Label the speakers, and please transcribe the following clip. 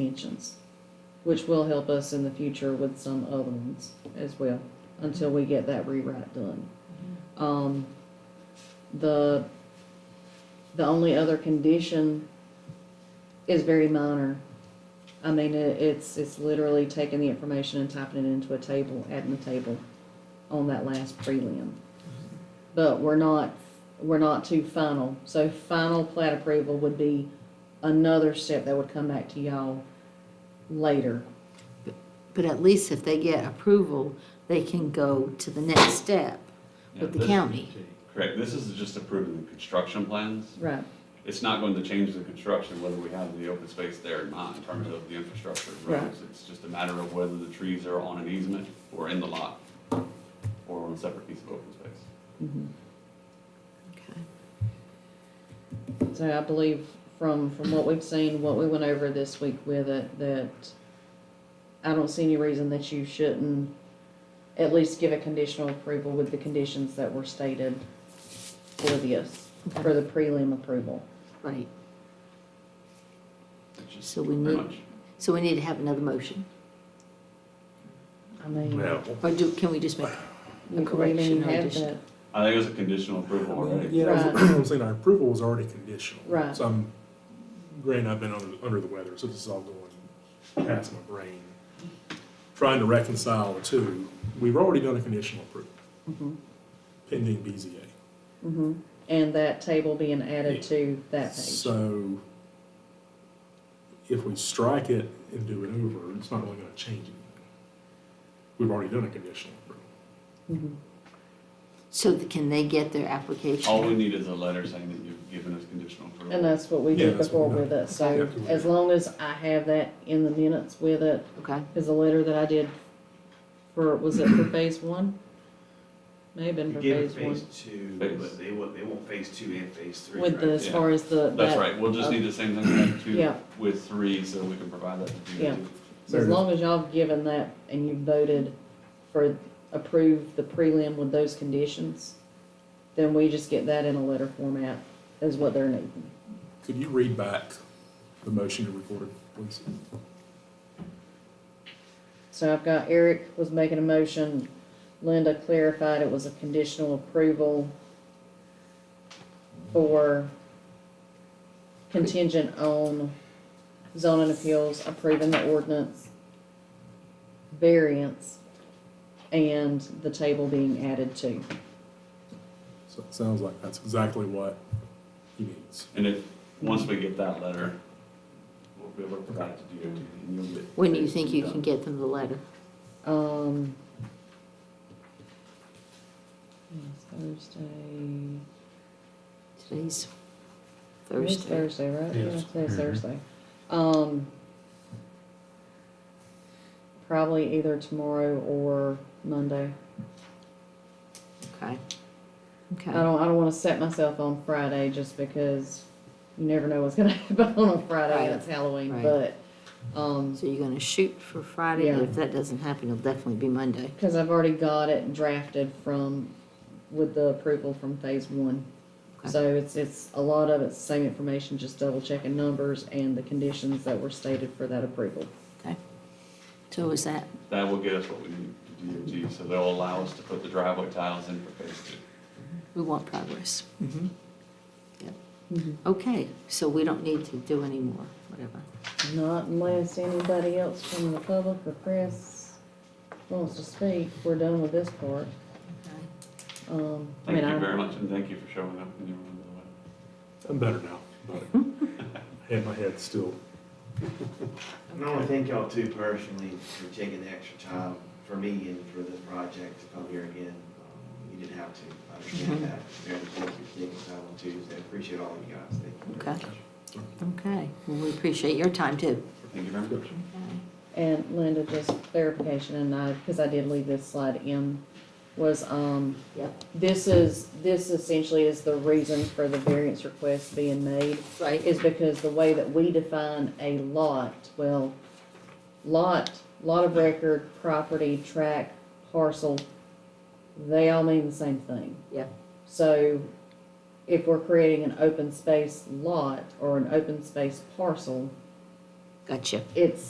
Speaker 1: dimensions, which will help us in the future with some other ones as well, until we get that rewrite done. Um, the, the only other condition is very minor. I mean, it, it's, it's literally taking the information and typing it into a table, adding the table on that last prelim. But we're not, we're not to final, so final plat approval would be another step that would come back to y'all later.
Speaker 2: But at least if they get approval, they can go to the next step with the
Speaker 3: Yeah, this-
Speaker 2: county.
Speaker 3: Correct, this is just approving the construction plans.
Speaker 1: Right.
Speaker 3: It's not going to change the construction, whether we have the open space there or not, in terms of the infrastructure of
Speaker 1: Right.
Speaker 3: roads. It's just a matter of whether the trees are on an easement or in the lot, or on a separate piece of open space.
Speaker 1: Mm-hmm.
Speaker 2: Okay.
Speaker 1: So I believe from, from what we've seen, what we went over this week with it, that I don't see any reason that you shouldn't at least give a conditional approval with the conditions that were stated for this, for the prelim approval.
Speaker 2: Right,
Speaker 3: It's just
Speaker 2: So we
Speaker 3: Pretty
Speaker 2: need-
Speaker 3: much,
Speaker 2: so we need to have another motion,
Speaker 1: I mean,
Speaker 4: Well,
Speaker 2: or do, can we just make,
Speaker 1: you can
Speaker 2: correction
Speaker 1: even
Speaker 2: or
Speaker 1: have
Speaker 2: addition.
Speaker 1: that,
Speaker 3: I think it was a conditional approval already.
Speaker 4: yeah, I'm saying our approval was already conditional.
Speaker 1: Right.
Speaker 4: So I'm, granted, I've been under, under the weather, so this is all going past my brain. Trying to reconcile the two, we've already done a conditional approval.
Speaker 1: Mm-hmm.
Speaker 4: Pending BZA.
Speaker 1: and that table being added to that page.
Speaker 4: So if we strike it and do it over, it's not really gonna change anything. We've already done a conditional approval.
Speaker 1: Mm-hmm.
Speaker 2: so that can they get their application?
Speaker 3: All we need is a letter saying that you've given us conditional
Speaker 1: And
Speaker 3: approval.
Speaker 1: that's what we
Speaker 4: Yeah,
Speaker 1: did
Speaker 4: that's
Speaker 1: before
Speaker 4: what we
Speaker 1: with it, so
Speaker 4: Yeah.
Speaker 1: as long as I have that in the minutes with it,
Speaker 2: Okay,
Speaker 1: is a letter that I did for, was it for phase one? May have been
Speaker 5: You
Speaker 1: for
Speaker 5: gave it
Speaker 1: phase
Speaker 5: phase
Speaker 1: one.
Speaker 5: two,
Speaker 3: Phase-
Speaker 5: but they want, they want phase two and phase three,
Speaker 1: With
Speaker 5: right?
Speaker 1: the, as
Speaker 3: Yeah.
Speaker 1: far as the.
Speaker 3: That's
Speaker 1: that-
Speaker 3: right, we'll just need the same thing with two,
Speaker 1: Yeah.
Speaker 3: with three, so we can provide that to
Speaker 1: Yeah.
Speaker 3: DOT.
Speaker 1: So as long as y'all have given that and you voted for, approve the prelim with those conditions, then we just get that in a letter format is what they're needing.
Speaker 4: Could you read back the motion you recorded, please?
Speaker 1: So I've got Eric was making a motion, Linda clarified it was a conditional approval for contingent on zoning appeals approving the ordinance, variance, and the table being added to.
Speaker 4: So it sounds like that's exactly what he needs.
Speaker 3: And if, once we get that letter, we'll be able to provide it to DOT and you'll get.
Speaker 2: when do you think you can get them the letter?
Speaker 1: Um. it's Thursday. It's
Speaker 2: Today's Thursday.
Speaker 1: Thursday, right?
Speaker 4: Yes.
Speaker 1: Yeah, today's Thursday. Um, probably either tomorrow or Monday.
Speaker 2: Okay.
Speaker 1: I
Speaker 2: Okay,
Speaker 1: don't, I don't wanna set myself on Friday just because you never know what's gonna happen on a Friday and it's Halloween,
Speaker 2: Right.
Speaker 1: but, um,
Speaker 2: so you're gonna shoot for Friday, and
Speaker 1: Yeah.
Speaker 2: if that doesn't happen, it'll definitely be Monday.
Speaker 1: cause I've already got it drafted from, with the approval from phase one.
Speaker 2: Okay.
Speaker 1: So it's, it's, a lot of it's the same information, just double checking numbers and the conditions that were stated for that approval.
Speaker 2: Okay. So is that,
Speaker 3: That will get us what we need to DOT, so they'll allow us to put the driveway tiles in for phase two.
Speaker 2: we want progress? Yep. Mm-hmm. Okay, so we don't need to do any more, whatever.
Speaker 1: Not unless anybody else from the public or press wants to speak, we're done with this part.
Speaker 2: Okay.
Speaker 1: Um, I mean,
Speaker 3: Thank you
Speaker 1: I,
Speaker 3: very much, and thank you for showing up and everyone the way.
Speaker 4: I'm better now. but I had my head still.
Speaker 5: And I want to thank y'all too personally for taking the extra time for me and for this project to come here again. Um, You didn't have to, I
Speaker 1: Mm-hmm.
Speaker 5: understand that, very important, you're taking time on Tuesday, I appreciate all of you guys, thank you very
Speaker 2: Okay.
Speaker 5: much.
Speaker 2: Okay, well, we appreciate your time too.
Speaker 3: Thank you very much.
Speaker 1: and Linda, just clarification, and I, because I did leave this slide in, was, um,
Speaker 2: Yep.
Speaker 1: this is, this essentially is the reason for the variance request being made.
Speaker 2: Right.
Speaker 1: is because the way that we define a lot, well, lot, lot of record, property, tract, parcel, they all mean the same thing.
Speaker 2: Yep.
Speaker 1: So if we're creating an open space lot or an open space parcel,
Speaker 6: Gotcha.
Speaker 2: it's